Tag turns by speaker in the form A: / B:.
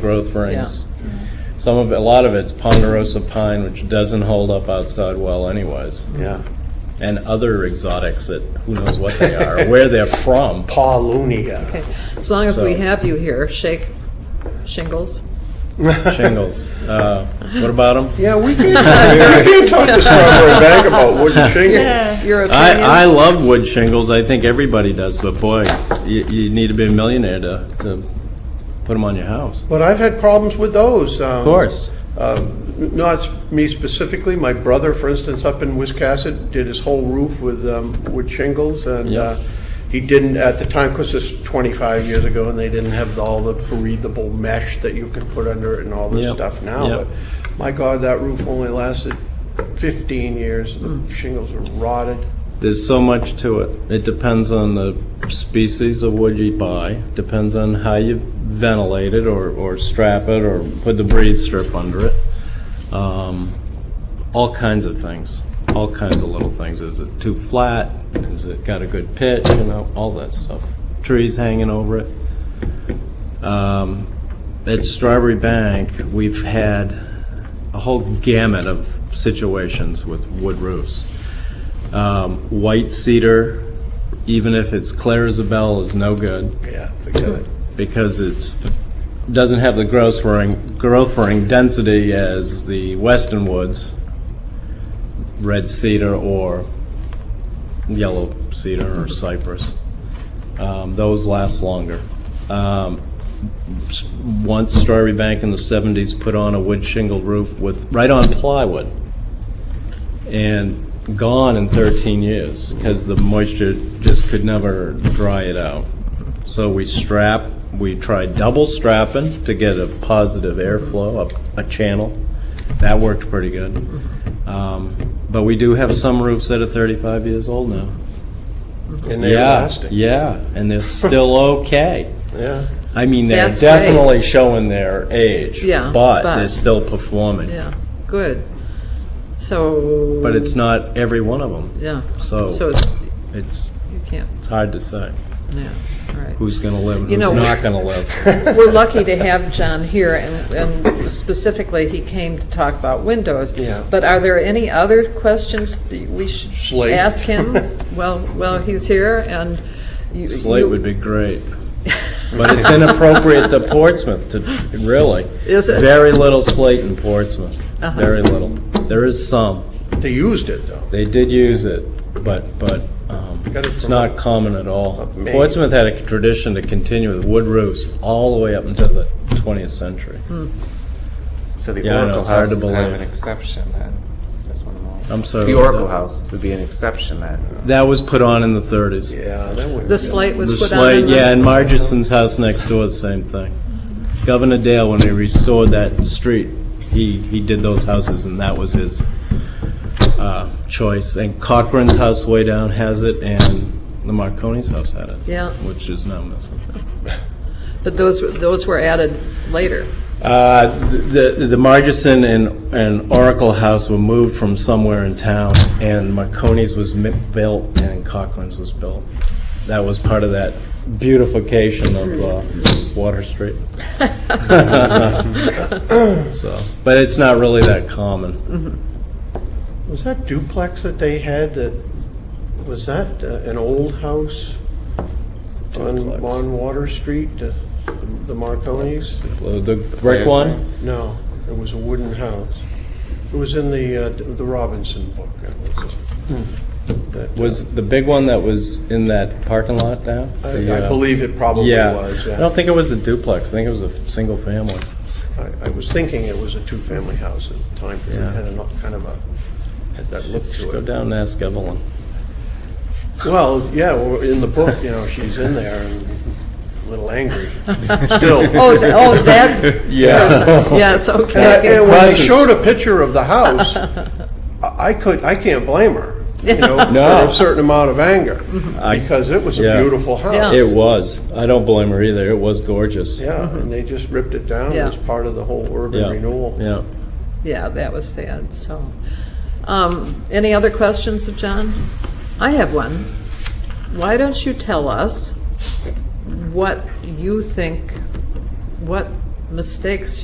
A: growth rings. Some of, it- a lot of it's ponderosa pine, which doesn't hold up outside well anyways,
B: Yeah.
A: and other exotics that, who knows what they are, where they're from.
B: Paulunia.
C: Okay, as long as we
A: So-
C: have you here, shake shingles.
A: Shingles. Uh, What about them?
B: Yeah, we can, we can talk to Strawberry Bank about wooden shingles.
C: Your opinion?
A: I, I love wood shingles, I think everybody does, but boy, you, you need to be a millionaire to, to put them on your house.
B: But I've had problems with those. Of
A: Of course.
B: Not me specifically, my brother, for instance, up in Wiscasset, did his whole roof with um, wood shingles, and
A: Yeah.
B: uh, he didn't, at the time, because this is 25 years ago, and they didn't have all the breathable mesh that you could put under it and all this
A: Yep,
B: stuff now,
A: yep.
B: but my God, that roof only lasted 15 years, the shingles were rotted.
A: There's so much to it. It depends on the species of wood you buy, depends on how you ventilate it or, or strap it or put the breathe strip under it. Um, all kinds of things, all kinds of little things. Is it too flat? Is it got a good pitch? You know, all that stuff. Trees hanging over it. Um, At Strawberry Bank, we've had a whole gamut of situations with wood roofs. Um, White cedar, even if it's clear as a bell, is no good
B: Yeah, forget it.
A: because it's, doesn't have the growth ring, growth ring density as the western woods, red cedar or yellow cedar or cypress. Um, Those last longer. Um, s- Once Strawberry Bank in the 70s put on a wood shingle roof with, right on plywood, and gone in 13 years, because the moisture just could never dry it out. So we strap, we tried double strapping to get a positive airflow up a channel. That worked pretty good. Um, But we do have some roofs that are 35 years old now.
B: And they're
A: Yeah,
B: lasting.
A: yeah, and they're still okay.
B: Yeah.
A: I mean, they're
C: That's great.
A: definitely showing their age.
C: Yeah,
A: But
C: but-
A: they're still performing.
C: Yeah, good. So.
A: But Oh. it's not every one of them.
C: Yeah.
A: So-
C: So it's,
A: It's,
C: you can't,
A: it's hard to say.
C: yeah, all right.
A: who's going to live and
C: You
A: who's
C: know-
A: not going to live.
C: We're lucky to have John here, and- and specifically, he came to talk about windows.
B: Yeah.
C: But are there any other questions that we should
B: Slate.
C: ask him? Well, well, he's here, and you.
A: Slate
C: you-
A: would be great. But it's inappropriate to Portsmouth, to, really.
C: Is it? Uh-huh.
A: Very little slate in Portsmouth, very little. There is some.
B: They used it, though.
A: They did use it, but, but um,
B: Gotta
A: it's not
B: promote-
A: common at all.
B: Amazing.
A: Portsmouth had a tradition to continue with wood roofs all the way up until the 20th century.
C: Hmm.
D: So the
A: Yeah, I know,
D: Oracle
A: it's hard
D: House
A: to
D: is kind of
A: believe.
D: an exception then. 'cause That's one of them all.
A: I'm sorry.
D: The
A: what was
D: Oracle
A: that?
D: House would be an exception then.
A: That was put on in the 30s.
B: Yeah, that wouldn't.
C: The slate was
A: The
C: put on.
A: slate,
C: in the-
A: yeah, and Margison's house next door, the same thing. Governor Dale, when he restored that street, he, he did those houses, and that was his uh, choice. And Cochran's house way down has it, and the Marconi's house had it.
C: Yeah.
A: Which is now missing.
C: But those, those were added later.
A: Uh, The the Margison and and Oracle House were moved from somewhere in town, and Marconi's was mi- built and Cochran's was built. That was part of that beautification of uh, Water Street. So, But it's not really that common.
B: Was that duplex that they had that, was that uh, an old house on,
A: Duplex.
B: on Water Street, the the Marconis?
A: The the brick one?
B: No, it was a wooden house. It was in the, uh, the Robinson book. It was, uh, that, uh,
A: Was the big one that was in that parking lot down?
B: I I believe it probably
A: Yeah.
B: was,
A: I
B: yeah.
A: don't think it was a duplex. I think it was a single family.
B: I I was thinking it was a two-family house at the time, because
A: Yeah.
B: it had a kind of a, had that look to it.
A: Go down and ask Evelyn.
B: Well, yeah, well, in the book, you know, she's in there and a little angry, still.
C: Oh, th- oh, that,
A: Yeah.
C: yes,
B: And I-
C: okay.
B: and when they
A: Prices.
B: showed a picture of the house, I I could, I can't blame her, you know,
A: No.
B: for a certain amount of anger, because it was a
A: yeah.
B: beautiful
C: Mm-hmm. Yeah.
B: house.
A: It was. I don't blame her either. It was gorgeous.
B: Yeah, and they just ripped it down
C: Yeah.
B: as part of the whole urban
A: Yeah.
B: renewal.
A: Yeah.
C: Yeah, that was sad, so. Um, Any other questions of John? I have one. Why don't you tell us what you think, what mistakes